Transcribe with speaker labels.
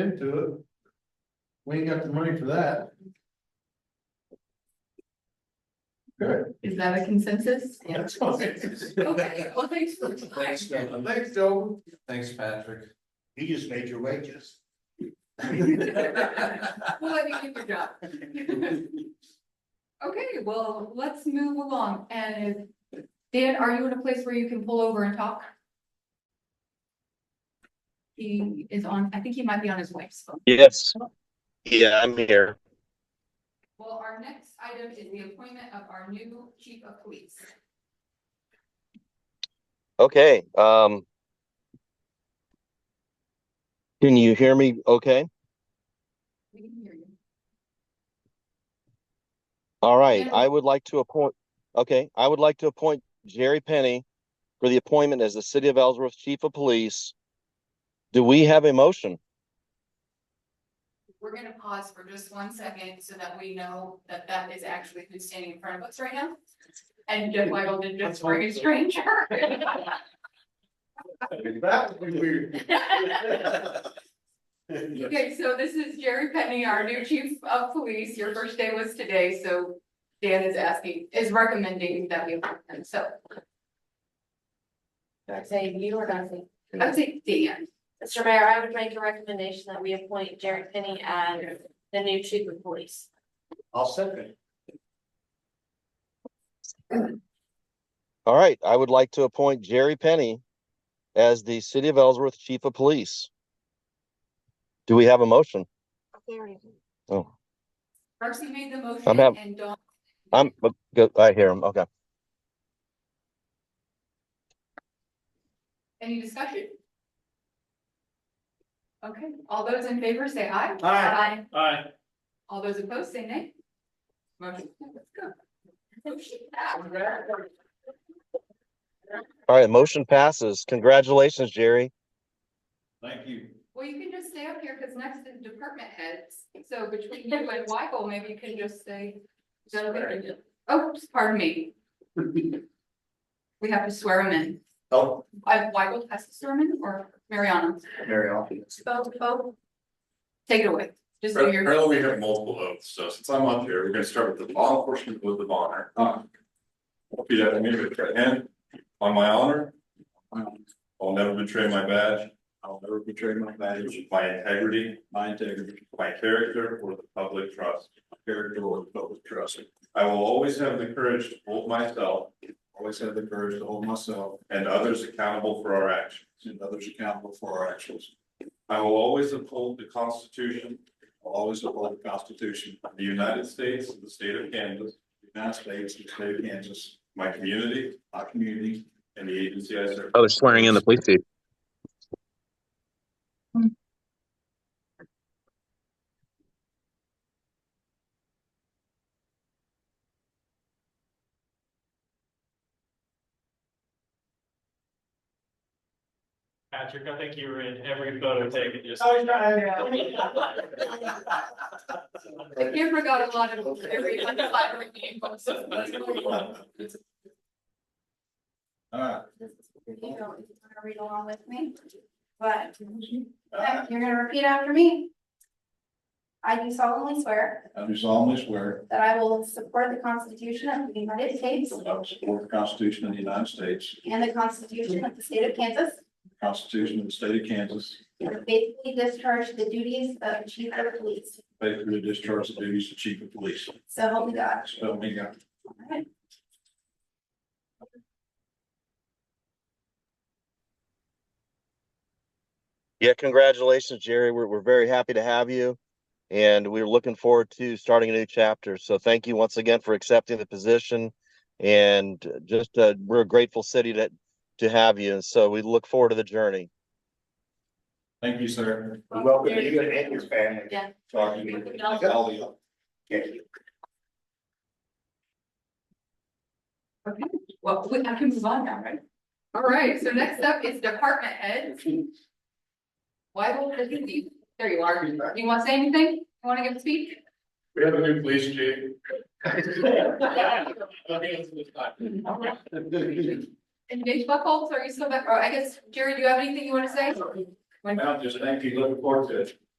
Speaker 1: into it. We ain't got the money for that. Good.
Speaker 2: Is that a consensus?
Speaker 1: That's all it is.
Speaker 2: Okay, well, thanks for the time.
Speaker 3: Thanks, Kevin.
Speaker 1: Thanks, Joe.
Speaker 3: Thanks, Patrick.
Speaker 4: You just made your wages.
Speaker 2: We'll let you keep your job. Okay, well, let's move along and if- Dan, are you in a place where you can pull over and talk? He is on, I think he might be on his wife's phone.
Speaker 5: Yes. Yeah, I'm here.
Speaker 2: Well, our next item is the appointment of our new chief of police.
Speaker 5: Okay, um. Can you hear me okay?
Speaker 2: We can hear you.
Speaker 5: All right,
Speaker 2: Yeah.
Speaker 5: I would like to appoint, okay, I would like to appoint Jerry Penny for the appointment as the City of Ellsworth Chief of Police. Do we have a motion?
Speaker 2: We're gonna pause for just one second so that we know that that is actually who's standing in front of us right now. And Jeff Weigel did just bring a stranger.
Speaker 1: That would be weird.
Speaker 2: Okay, so this is Jerry Penny, our new chief of police. Your first day was today, so Dan is asking, is recommending that we appoint him, so
Speaker 6: Say you or nothing.
Speaker 2: I'd say Dan.
Speaker 6: Mr. Mayor, I would make a recommendation that we appoint Jared Penny as the new chief of police.
Speaker 4: I'll second.
Speaker 5: All right, I would like to appoint Jerry Penny as the City of Ellsworth Chief of Police. Do we have a motion? Oh,
Speaker 2: Darcy made the
Speaker 5: I'm
Speaker 2: motion
Speaker 5: hav-
Speaker 2: and Dawn.
Speaker 5: I'm, good, I hear him, okay.
Speaker 2: Any discussion? Okay, all those in favor say aye.
Speaker 4: Aye.
Speaker 3: Aye.
Speaker 2: All those opposed say nay. Motion, let's go. Motion passed.
Speaker 5: All right, motion passes. Congratulations, Jerry.
Speaker 3: Thank you.
Speaker 2: Well, you can just stay up here because next is department heads. So between you and Michael, maybe you can just say.
Speaker 4: Swear.
Speaker 2: Oops, pardon me. We have to swear him in.
Speaker 4: Oh,
Speaker 2: I, Michael has to swear him in or Mariana?
Speaker 4: very often.
Speaker 2: Both, both. Take it away. Just do your.
Speaker 7: Apparently, we have multiple oaths, so since I'm up here, we're gonna start with the law enforcement oath of honor. Repeat after me with your right hand, on my honor, I'll never betray my badge,
Speaker 4: I'll never betray my badge,
Speaker 7: my integrity,
Speaker 4: my integrity,
Speaker 7: my character, or the public trust.
Speaker 4: character, or public trust.
Speaker 7: I will always have the courage to hold myself
Speaker 4: Always have the courage to hold myself
Speaker 7: and others accountable for our actions.
Speaker 4: and others accountable for our actions.
Speaker 7: I will always uphold the Constitution
Speaker 4: I'll Always uphold the Constitution
Speaker 7: of the United States and the state of Kansas,
Speaker 4: of the United States and the state of Kansas,
Speaker 7: my community,
Speaker 4: our community,
Speaker 7: and the agency I serve.
Speaker 5: Oh, they're swearing in the police chief.
Speaker 8: Patrick, I think you were in every photo taken just.
Speaker 2: The camera got a lot of very unflattering angles.
Speaker 4: All right.
Speaker 6: You know, if you want to read along with me, but you're gonna repeat after me. I do solemnly swear
Speaker 4: I do solemnly swear
Speaker 6: that I will support the Constitution of the United States
Speaker 4: that I will support the Constitution of the United States,
Speaker 6: and the Constitution of the State of Kansas,
Speaker 4: the Constitution of the state of Kansas,
Speaker 6: and faithfully discharge the duties of chief of police.
Speaker 4: faithfully discharge the duties of chief of police.
Speaker 6: So help me God.
Speaker 4: So help me God.
Speaker 5: Yeah, congratulations, Jerry. We're, we're very happy to have you. And we're looking forward to starting a new chapter. So thank you once again for accepting the position. And just, uh, we're a grateful city to, to have you. And so we look forward to the journey.
Speaker 4: Thank you, sir.
Speaker 6: Welcome to you and your
Speaker 4: family.
Speaker 6: Yeah.
Speaker 4: Talking to you. All of you. Thank you.
Speaker 2: Okay, well, we- I can move on now, right? All right, so next up is department heads. Why will it be? There you are. You want to say anything? You want to give a speech?
Speaker 7: We have a new police chief.
Speaker 2: And Dave Oh, Buckholz, are you still back? Or I guess, Jerry, do you have anything you want to say?
Speaker 7: Now, just thank you, looking forward to it.